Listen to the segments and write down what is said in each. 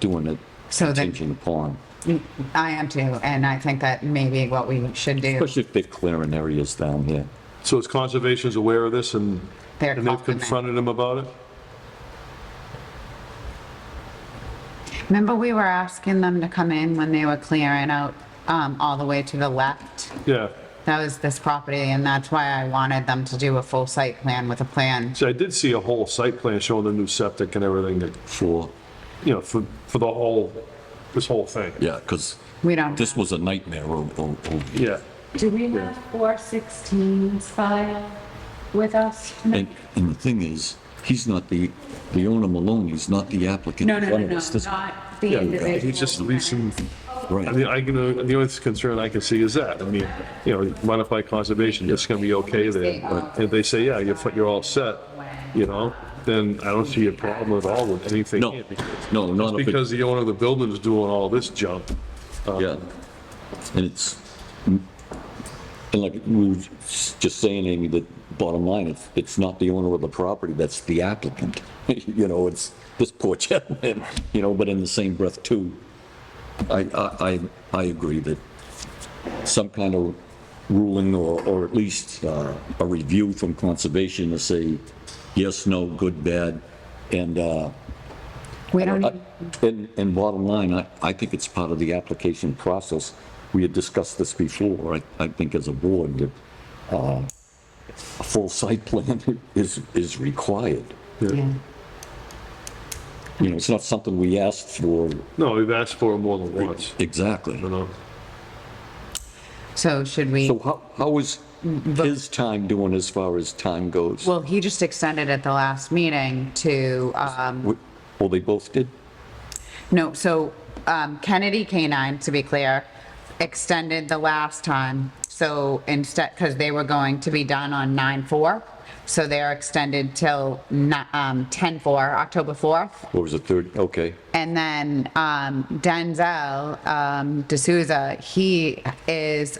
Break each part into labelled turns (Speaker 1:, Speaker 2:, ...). Speaker 1: doing it
Speaker 2: So then-
Speaker 1: contingent upon,
Speaker 2: I am too, and I think that may be what we should do.
Speaker 1: especially if they're clearing areas down here.
Speaker 3: So is conservation's aware of this and,
Speaker 2: They're
Speaker 3: and they've
Speaker 2: confident.
Speaker 3: confronted him about it?
Speaker 2: Remember, we were asking them to come in when they were clearing out, um, all the way to the left?
Speaker 3: Yeah.
Speaker 2: That was this property, and that's why I wanted them to do a full site plan with a plan.
Speaker 3: So I did see a whole site plan showing the new septic and everything, that
Speaker 1: For,
Speaker 3: you know, for, for the whole, this whole thing.
Speaker 1: yeah, because
Speaker 2: We don't,
Speaker 1: this was a nightmare over, over here.
Speaker 3: Yeah.
Speaker 4: Do we have 416's file with us?
Speaker 1: And, and the thing is, he's not the, the owner Maloney's not the applicant.
Speaker 4: No,
Speaker 1: in
Speaker 4: no, no,
Speaker 1: front of
Speaker 4: no,
Speaker 1: us. This-
Speaker 4: not the
Speaker 3: Yeah,
Speaker 4: individual.
Speaker 3: he's just leasing, I
Speaker 1: Right,
Speaker 3: mean, I can, uh, the only concern I can see is that, I mean, you know, modify conservation, it's gonna be okay there. And if they say, yeah, you're, fi- you're all set, you know, then I don't see a problem at all with anything.
Speaker 1: no,
Speaker 3: here,
Speaker 1: no, not if it,
Speaker 3: Because the owner of the building is doing all this junk.
Speaker 1: yeah. And it's, and like we were just saying, Amy, that bottom line, it's, it's not the owner of the property, that's the applicant. You know, it's this poor gentleman, you know, but in the same breath too, I, I, I, I agree that some kind of ruling or, or at least uh, a review from conservation to say, yes, no, good, bad, and, uh,
Speaker 2: we don't,
Speaker 1: I- Uh, And, and bottom line, I, I think it's part of the application process. We had discussed this before, I, I think as a board, that, uh, a full site plan is, is required.
Speaker 2: yeah.
Speaker 1: You know, it's not something we asked for
Speaker 3: No, we've asked for it more than once,
Speaker 1: exactly.
Speaker 3: you know?
Speaker 2: So should we?
Speaker 1: So how, how is his time doing as far as time goes?
Speaker 2: Well, he just extended at the last meeting to, um,
Speaker 1: Wh- Well, oh, they both did?
Speaker 2: no, so, um, Kennedy Canine, to be clear, extended the last time. So instead, because they were going to be done on nine four, so they're extended till ni- um, ten four, October fourth.
Speaker 1: Or was it third? Okay.
Speaker 2: And then, um, Denzel, um, D'Souza, he is,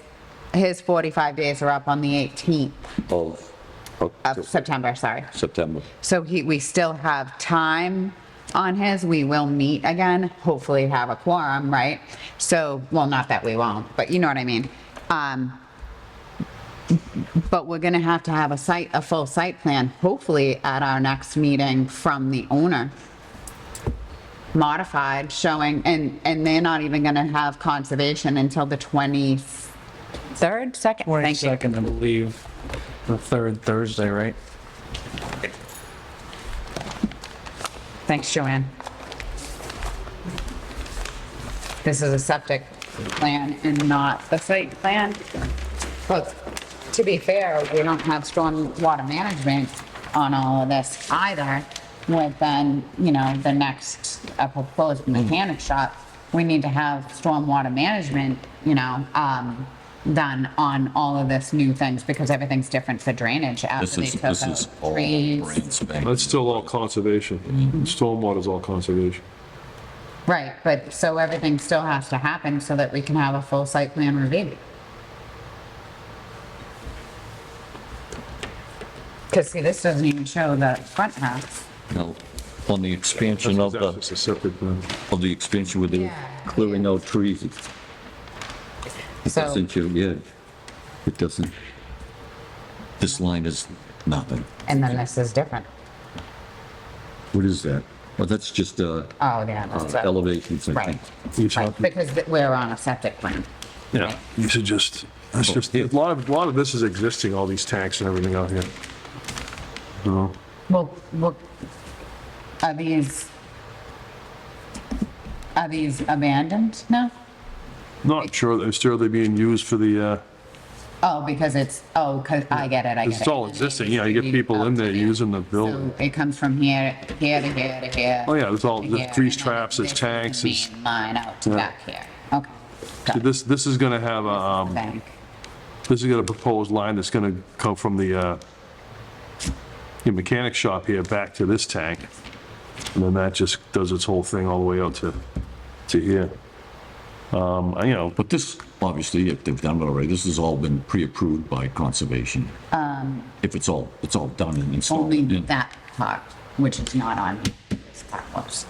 Speaker 2: his forty-five days are up on the eighteenth
Speaker 1: Of,
Speaker 2: of
Speaker 1: of
Speaker 2: September, sorry.
Speaker 1: September.
Speaker 2: So he, we still have time on his, we will meet again, hopefully have a quorum, right? So, well, not that we won't, but you know what I mean. Um, but we're gonna have to have a site, a full site plan, hopefully at our next meeting from the owner. Modified, showing, and, and they're not even gonna have conservation until the twenty-third, second, thank you.
Speaker 5: Twenty-second, I believe, the third Thursday, right?
Speaker 2: Thanks, Joanne. This is a septic plan and not the site plan. But to be fair, we don't have strong water management on all of this either. With then, you know, the next uh,
Speaker 1: Hmm.
Speaker 2: proposed mechanic shop, we need to have storm water management, you know, um, done on all of this new things because everything's different for drainage
Speaker 1: This
Speaker 2: after they
Speaker 1: is,
Speaker 2: took
Speaker 1: this is all
Speaker 2: out trees.
Speaker 1: brand spanking.
Speaker 3: That's still all conservation.
Speaker 2: Mm-hmm.
Speaker 3: Stormwater's all conservation.
Speaker 2: Right, but so everything still has to happen so that we can have a full site plan review. Because see, this doesn't even show the front half.
Speaker 1: Now, on the expansion of
Speaker 3: That's
Speaker 1: the,
Speaker 3: just a separate plan.
Speaker 1: of the expansion with the
Speaker 2: Yeah.
Speaker 1: clearing out trees, it
Speaker 2: So,
Speaker 1: doesn't, you- yeah, it doesn't. This line is nothing.
Speaker 2: and then this is different.
Speaker 1: What is that? Well, that's just, uh,
Speaker 2: Oh, yeah.
Speaker 1: uh,
Speaker 2: that's a-
Speaker 1: elevations, I
Speaker 2: Right,
Speaker 1: think.
Speaker 3: You
Speaker 2: right,
Speaker 3: talking-
Speaker 2: because th- we're on a septic plan.
Speaker 3: Yeah, you should just, that's just, a lot of, a lot of this is existing, all these tanks and everything out here. You know?
Speaker 2: Well, well, are these, are these abandoned now?
Speaker 3: Not sure, I'm sure they're being used for the, uh,
Speaker 2: Oh, because it's, oh, 'cause- I get it, I get it.
Speaker 3: it's all existing, yeah, you get people in there using the building.
Speaker 2: So it comes from here, here to here to here.
Speaker 3: Oh, yeah, there's all,
Speaker 2: to
Speaker 3: there's
Speaker 2: here,
Speaker 3: grease
Speaker 2: and then
Speaker 3: traps, there's
Speaker 2: this is the
Speaker 3: tanks, it's,
Speaker 2: main Line out to
Speaker 3: Yeah.
Speaker 2: back here. Okay.
Speaker 3: so this, this is gonna have, a, um,
Speaker 2: Bank.
Speaker 3: this is gonna proposed line that's gonna come from the, uh, your mechanic shop here back to this tank. And then that just does its whole thing all the way out to, to here. Um, I, you know,
Speaker 1: But this, obviously, if they've done it already, this has all been pre-approved by conservation. If it's all, it's all done and installed.
Speaker 2: Um. Only
Speaker 1: in.
Speaker 2: that part, which is not on this part was.